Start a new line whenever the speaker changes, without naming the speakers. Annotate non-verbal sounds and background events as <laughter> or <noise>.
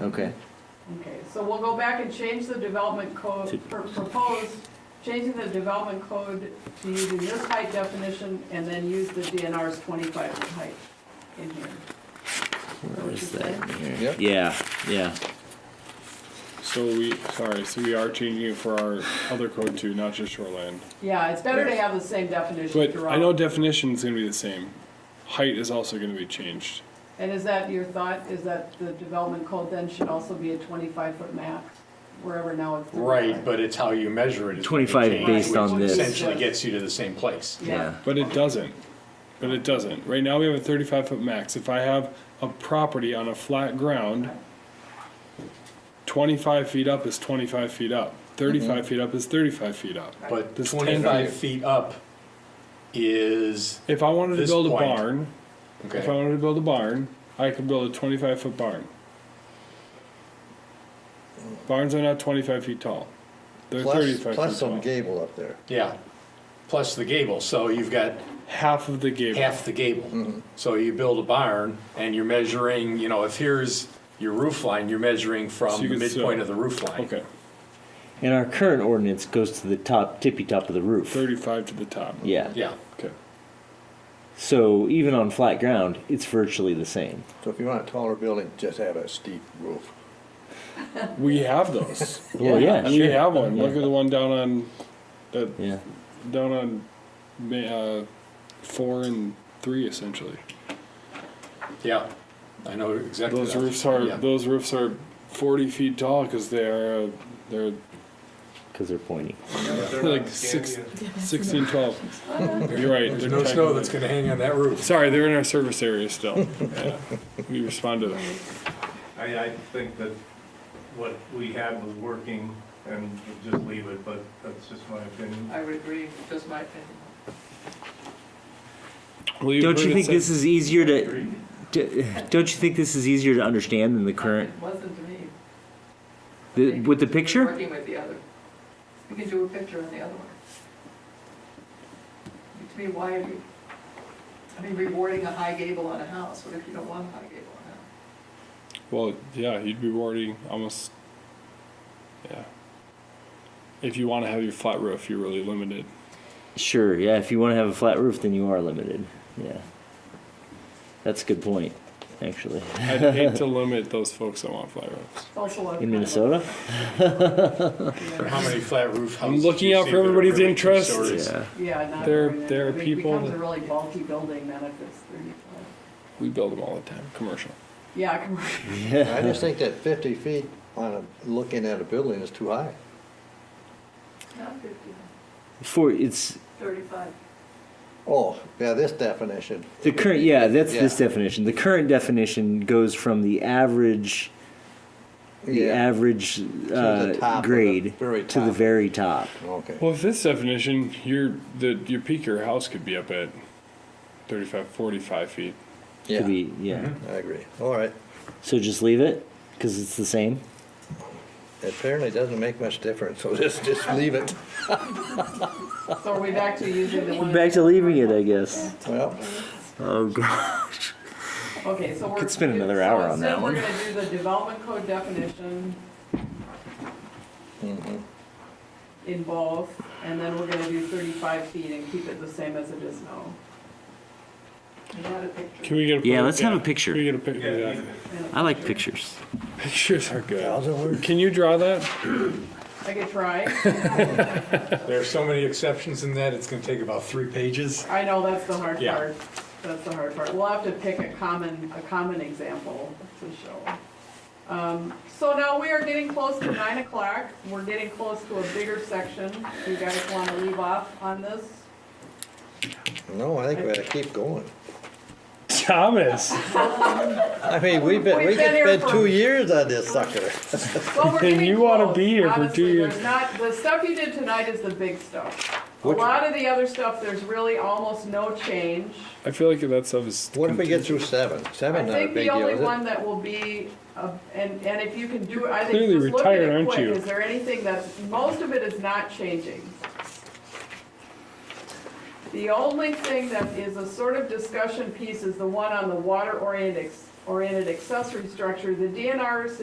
Okay,
Okay, so we'll go back and change the development code, or propose changing the development code to using this height definition and then use the DNR's twenty-five foot height in here.
where is that in here?
Yep.
Yeah, yeah,
So we, sorry, so we are changing it for our other code too, not just shoreline.
Yeah, it's better to have the same definition
But I know
throughout.
definition's gonna be the same. Height is also gonna be changed.
And is that your thought, is that the development code then should also be a twenty-five foot max, wherever now it's. 35?
Right, but it's how you measure it. is gonna
25
change,
based
which
on this.
Essentially gets you to the same place.
yeah.
But it doesn't. But it doesn't. Right now we have a thirty-five foot max. If I have a property on a flat ground, twenty-five feet up is twenty-five feet up.
Mm-hmm.
Thirty-five feet up is thirty-five feet up.
But
This
twenty-five
10.
feet up is,
If I wanted to
This
build a
point.
barn, if I
okay,
wanted to build a barn, I could build a twenty-five foot barn. Barns are not twenty-five feet tall. They're
Plus,
thirty-five
plus
feet
some
tall.
gable up there.
yeah, plus the gable, so you've got
Half of the gable.
half the
Mm-hmm.
gable. So you build a barn and you're measuring, you know, if here's your roof line, you're measuring
So
from
you
the
could
midpoint
sell-
of the roof line.
Okay,
And our current ordinance goes to the top, tippy top of the roof.
thirty-five to the top.
Yeah.
Yeah,
Okay.
So even on flat ground, it's virtually the same.
So if you want a taller building, just have a steep roof.
We
<laughs>
have those.
Well, Oh, yeah,
We
sure.
have one. Look
Yeah.
at the one down on, that
Yeah.
down on, Ma- uh, four and three essentially.
yeah, I know exactly.
Those
that.
roofs are
Yeah.
those roofs are forty feet tall because they are uh,
<laughs>
they're
Because they're pointy.
like six, 16, 12. You're right.
There's
they're
no snow
technically-
that's gonna hang on that roof.
Sorry, they're in our service
<laughs>
area still. Yeah. We respond to them.
I, I think that what we had was working and we'll just leave it, but that's just my opinion.
I would agree, just my opinion.
Will
Don't
believe
you
it
think
said-
this is easier to? d- Don't you think this is easier to understand than the current
It wasn't to me.
the, with the picture?
Working with the other. You can do a picture on the other one. To me, why are you, I mean, rewarding a high gable on a house, what if you don't want a high gable on a house?
Well, yeah, you'd be rewarding almost. Yeah. If you want to have your flat roof, you're really limited.
Sure. Yeah. If you want to have a flat roof, then you are limited. Yeah. That's a good point, actually.
I'd
<laughs>
hate to limit those folks that want flat roofs.
It's also a-
In Minnesota.
How many flat roof houses?
I'm looking
do you
out
see
for
that are
everybody's
really two
interest.
stories?
Yeah.
Yeah, not.
There-
very-
there are
it
people
Becomes a
that-
really bulky building then if it's thirty-five.
We build them all the time, commercial.
Yeah, commercial.
I just think that fifty feet on a, looking at a building is too high.
Not fifty,
For it's
thirty-five.
Oh, yeah, this definition.
The current, yeah, that's this
Yeah.
definition. The current definition goes from the average, the
Yeah.
average
the
uh,
top of the
grade
very
to the
top.
very top.
Okay.
Well, with this definition, your the your peak of your house could be up at 35, 45 feet.
To
Yeah,
be, yeah.
I agree. All right.
So just leave it because it's the same.
Apparently it doesn't make much difference, so <laughs> just, just leave it.
So are we back to using the one?
Back to leaving it, I guess.
Well,
Oh god.
Okay, so we're.
Could spend another hour on that one.
So instead, we're gonna do the development code definition
Mm-hmm.
in both, and then we're gonna do thirty-five feet and keep it the same as it is now.
Not a picture.
Can we get a
Yeah, let's have a picture.
Can we get a picture?
Yeah,
Yeah.
even if-
I like pictures.
Pictures are good.
thousand words.
Can you draw that?
I could
<laughs>
try.
There are so many exceptions in that, it's gonna take about three pages.
I know, that's the hard
Yeah.
part. That's the hard part. We'll have to pick a common, a common example to show. Um, So now we are getting close to nine o'clock. We're getting close to a bigger section. Do you guys want to leave off on this?
No, I think we gotta keep going.
Thomas.
I mean, we've been, we
We've been here
could spend
for-
two years on this sucker.
Well, we're
<laughs> Then
getting
you wanna
close.
be here for two
Honestly, there's
years.
Not, the stuff you did tonight is the big stuff. A lot of the other stuff, there's really almost no change.
I feel like that stuff is.
What if we get through seven?
I
Seven not a
think
big
the
deal,
only
is it?
one that will be, uh, and, and if you can do, I think
Clearly
just look at
retired,
it
aren't
quick,
you?
is there anything that's, most of it is not changing. The only thing that is a sort of discussion piece is the one on the water oriented, oriented accessory structure. The DNR's